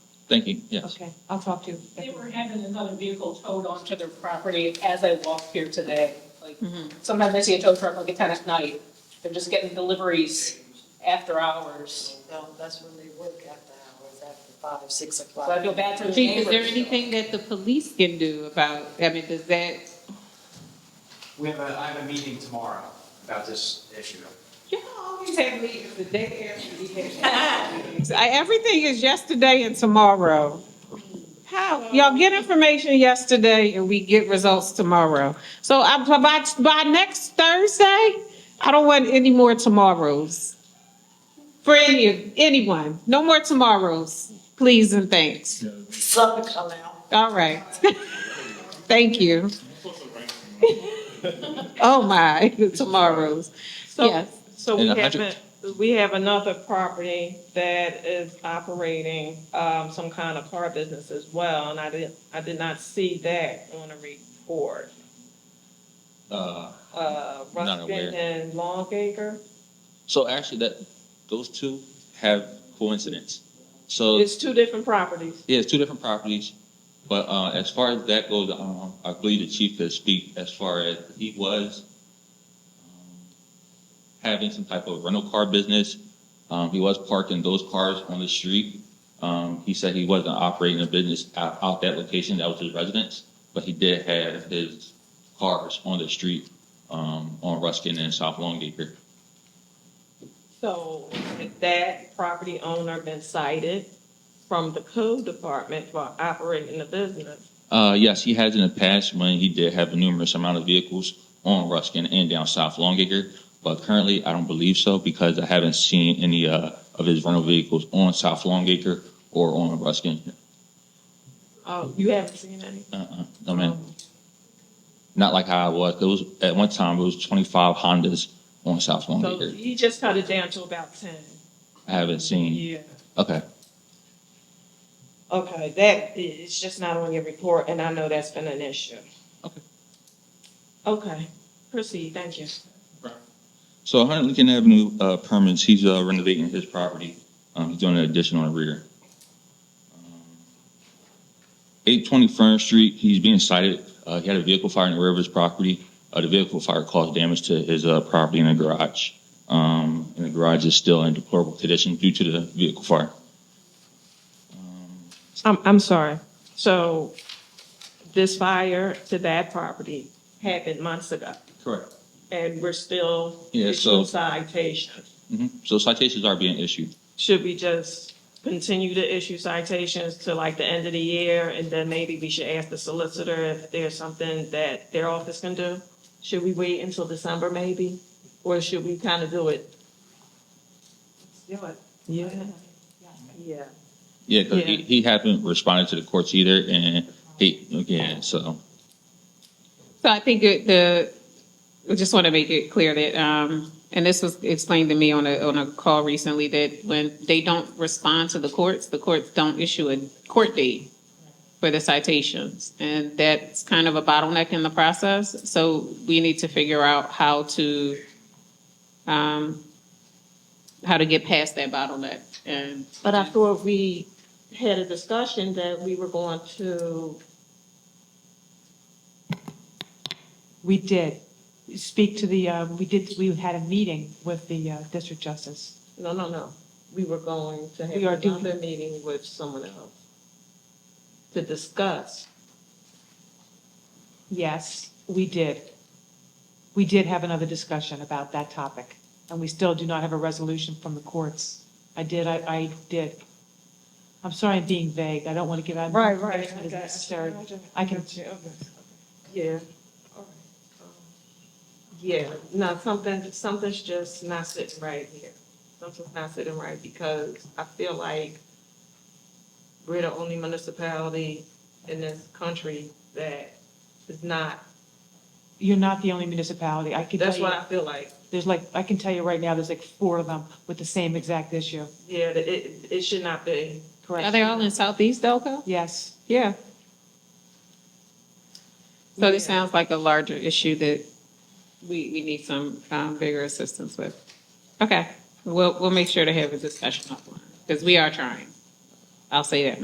thinking, yes. Okay, I'll talk to. They were having another vehicle towed onto their property as I walked here today. Like, Mm-hmm. sometimes I see a tow truck like at ten at night. They're just getting deliveries after hours. No, that's when they work after hours, after five, six o'clock. So I feel bad for the Chief, is there neighbors. anything that the police can do about, I mean, does that, We have a, I have a meeting tomorrow about this issue. you always have meetings the day after we have. I- Everything is yesterday and tomorrow. How, y'all get information yesterday and we get results tomorrow. So I, by, by next Thursday, I don't want any more tomorrows. For any, anyone, no more tomorrows, please and thanks. Sun come out. All right. Thank you. Oh my, tomorrow's, So, yes. so In we a hundred- haven't, we have another property that is operating, um, some kind of car business as well, and I did, I did not see that on the report. Uh, Uh, Not aware. Ruskin and Longacre, So actually, that, those two have coincidence. So, yeah, it's two different properties. it's two different properties, but uh, as far as that goes, um, I believe the chief could speak as far as he was um, having some type of rental car business. Um, He was parking those cars on the street. Um, He said he wasn't operating a business out, out that location, that was his residence, but he did have his cars on the street um, on Ruskin and South Longacre. So has that property owner been cited from the code department for operating the business. Uh, yes, he has in the past when he did have a numerous amount of vehicles on Ruskin and down South Longacre, but currently I don't believe so because I haven't seen any uh, of his rental vehicles on South Longacre or on Ruskin. Oh, you haven't seen any? Uh-uh, no, man. Um, Not like how I was. It was at one time it was 25 Hondas on South So Longacre. he just cut it down to about ten. I haven't seen. Yeah. Okay, Okay, that, it's just not on your report, and I know that's been an issue. Okay. Okay, proceed, thank you. so 100 Lincoln Avenue uh, permits. He's uh, renovating his property. Um, he's doing an addition on the rear. 820 Fern Street, he's being cited. Uh, he had a vehicle fire in the rear of his property. Uh, the vehicle fire caused damage to his uh, property in the garage. Um, and the garage is still in deplorable condition due to the vehicle fire. I'm, I'm sorry, so this fire to that property happened months ago, Correct. and we're still Yeah, so- issuing citations. hmm So citations are being issued. Should we just continue to issue citations to like the end of the year, and then maybe we should ask the solicitor if there's something that their office can do? Should we wait until December maybe, or should we kind of do it Do it. Yeah, yeah. Yeah, because he, Yeah. he hasn't responded to the courts either, and he again. So So I think it, the, I just want to make it clear that, um, and this was explained to me on a, on a call recently, that when they don't respond to the courts, the courts don't issue a court date for the citations. And that's kind of a bottleneck in the process. So we need to figure out how to, um, how to get past that bottleneck and. But I thought we had a discussion that we were going to, We did speak to the, um, we did, we had a meeting with the uh, district justice. no, no, no. We were going to We are have doing- another meeting with someone else to discuss. Yes, we did. We did have another discussion about that topic, and we still do not have a resolution from the courts. I did, I, I did. I'm sorry I'm being vague. I don't want to give out. information that is necessary. I can- Yeah. Yeah, no, something, something's just not sitting right here. Something's not sitting right because I feel like we're the only municipality in this country that is not, You're not the only municipality. I can tell that's you, what I feel like. there's like, I can tell you right now, there's like four of them with the same exact issue. Yeah, that it, it should not be. Correct. Are they all in Southeast Delco? Yes. Yeah. So this Yeah. sounds like a larger issue that we, we need some um, bigger assistance with. Okay, we'll, we'll make sure to have a discussion offline, because we are trying. I'll say that